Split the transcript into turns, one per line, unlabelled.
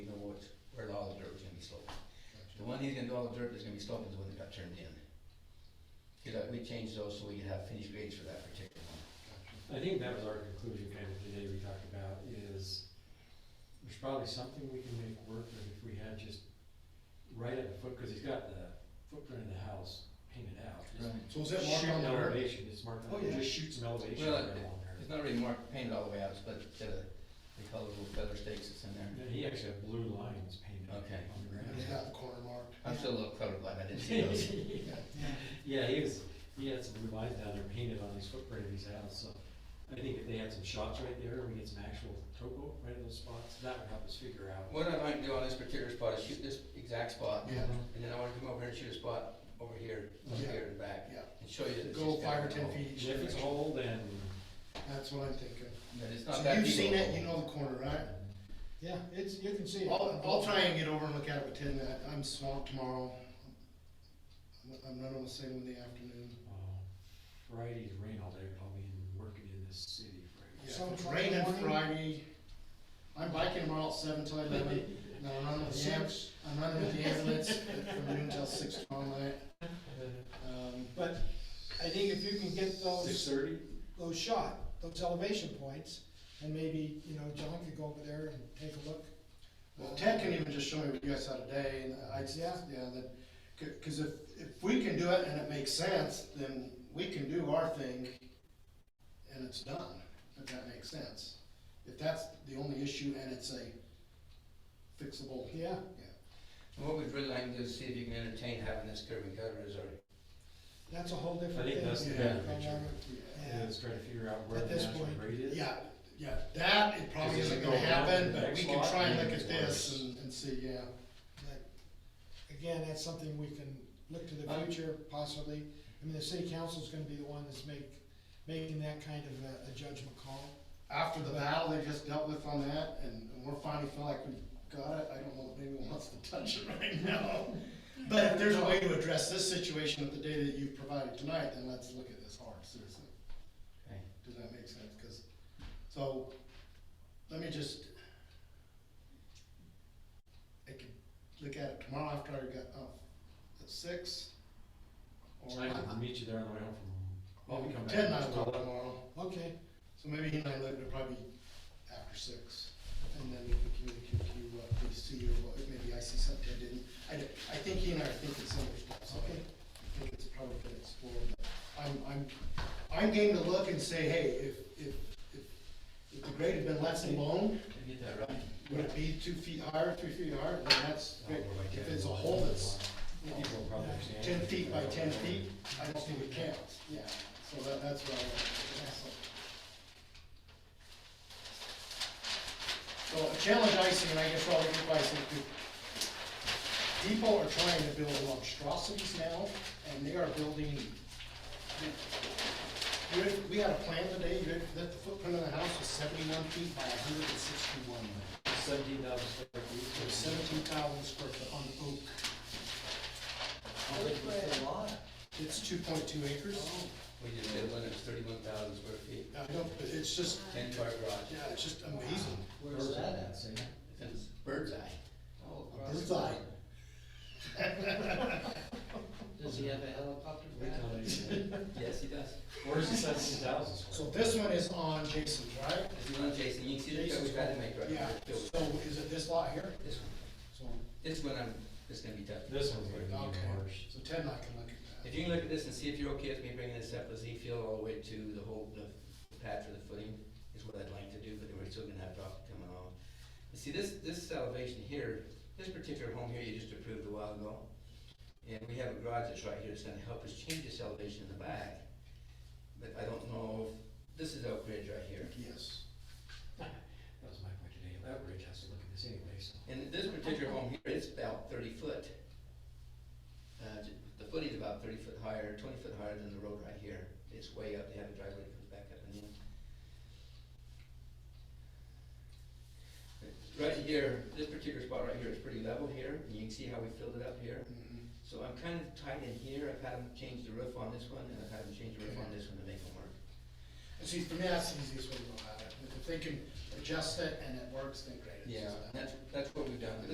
he's gonna do all the dirt, there's gonna be stop is when it got turned in. Cause uh, we changed those so we could have finished grades for that particular one.
I think that was our conclusion kind of today we talked about is there's probably something we can make work, but if we had just right at the foot, because he's got the footprint of the house painted out. just
So is that marked
Shoot
on
an
the dirt?
elevation, it's marked
Oh,
on,
yeah.
just shoot some elevation
Well,
right along there.
It's not really marked, painted all the way out, it's but it's got a, they call it little feather stakes that's in there.
And He actually had blue lines painted on
Okay.
the
And
ground.
they got the corner marked.
I'm still a little colorblind, I didn't see those.
Yeah, he was, he had some blue lines down there painted on his footprint of his house, so I think if they had some shots right there, we get some actual topo right in those spots, that would help us figure out.
What I might do on this particular spot is shoot this exact spot,
Yeah,
and then I wanna come over here and shoot a spot over here, over
Yeah.
here and back,
yeah.
and show you that it's
Go
just
five
down
or ten
below.
feet each
If it's
direction.
old and,
That's what I'm thinking.
But it's not
So
that
you've
deep
seen
of a
it, you
hole.
know the corner, right?
Yeah, it's, you can see it.
I'll, I'll try and get over and look at it with ten minutes. I'm swamped tomorrow. I'm- I'm running the same in the afternoon.
uh, Friday's rain all day, probably in working in this city
Yeah,
Friday.
if
So
it's
Friday
raining
morning?
Friday. I'm biking tomorrow at seven till eleven, and I'm running with the ambulance,
Six.
I'm running with the ambulance from noon till six tomorrow night. Um,
But I think if you can get
Six
those,
thirty?
those shot, those elevation points, and maybe, you know, John could go over there and take a look.
Well, Ted can even just show me what you guys had today, and I, yeah, yeah, that, c- cause if, if we can do it and it makes sense, then we can do our thing and it's done, if that makes sense. If that's the only issue and it's a fixable,
Yeah,
And What we'd really like to do is see if you can entertain having this curb and gutter as our,
that's a whole different
I think
thing.
that's
the
better
Yeah.
picture.
yeah,
Yeah.
Let's try to figure out where
At
the
this
national
point,
grade is.
yeah, yeah, that, it probably
Is it
isn't
gonna
gonna
go down to
happen,
the
but
next
we can
lot?
try and look
Maybe
at this
worse.
and, and see, yeah.
But, Again, that's something we can look to the
Uh,
future possibly. I mean, the city council's gonna be the one that's make, making that kind of a- a judgment call.
After the battle they just dealt with on that, and and we're finally feeling like we got it, I don't know if anyone wants to touch it right now. But if there's a way to address this situation with the data that you've provided tonight, then let's look at this hard, seriously.
Okay.
Does that make sense? Because, so, let me just, I could look at it tomorrow after I got off at six. Or
I can meet you there on the way home from, well, we come back.
Ted and I will go tomorrow.
Okay,
So maybe he and I look, it'll probably be after six, and then we can communicate uh, to you what we see, or what, maybe I see something I didn't. I, don't- I think he and I are thinking similar stuff, so I
Okay.
think it's probably been explored. but I'm, I'm, I'm game to look and say, hey, if, if, if, if the grade had been less alone,
Did you get that right?
would it be two feet higher, three feet higher, then that's, great. if it's a hole that's you know,
People will probably understand.
ten feet by ten feet, I don't think it counts, yeah, so that, that's what I want. So a challenge I see, and I guess Robert, your advice is, to- people are trying to build monstrosities now, and they are building, we, we had a plan today, you ready for that the footprint of the house was seventy-one feet by hundred and sixty-one,
Seventeen thousand square
so
feet.
seventeen thousand square foot on oak.
Oh,
It's two point two acres.
We just did one, it's thirty-one thousand square feet,
I don't, but it's just,
ten car garage.
yeah, it's just amazing.
Where's that at, Sam?
It's bird's eye. all across.
Bird's eye.
Does he have a helicopter?
We tell you.
Yes, he does.
Where's the seventeen thousand square?
So this one is on Jason's, right?
If you want, Jason, you can see the curb we tried to make right
Yeah,
here. too.
so is it this lot here?
This one,
So,
this one, I'm, this is gonna be tough.
This one's gonna be
Okay.
even worse.
so Ted and I can look at that.
If you can look at this and see if you're okay with me bringing this up as Z field all the way to the whole, the pad for the footing, is what I'd like to do, but we're still gonna have rock coming off. You see, this, this elevation here, this particular home here you just approved a while ago, and we have a garage that's right here that's gonna help us change this elevation in the back. But I don't know, if this is Oak Ridge right here,
Yes.
That was my point today, that bridge has to look at this anyway, so.
and this particular home here, it's about thirty foot. Uh, j- the footing's about thirty foot higher, twenty foot higher than the road right here, it's way up, they have a driveway that comes back up and in. Right here, this particular spot right here is pretty level here, and you can see how we filled it up here.
Mhm.
So I'm kind of tight in here, I've had them change the roof on this one, and I've had them change the roof on this one to make them work.
And see, for me, that's the easiest way to go about it. If they can adjust it and it works, then great. It's just
And
that.
That's, that's what we've done,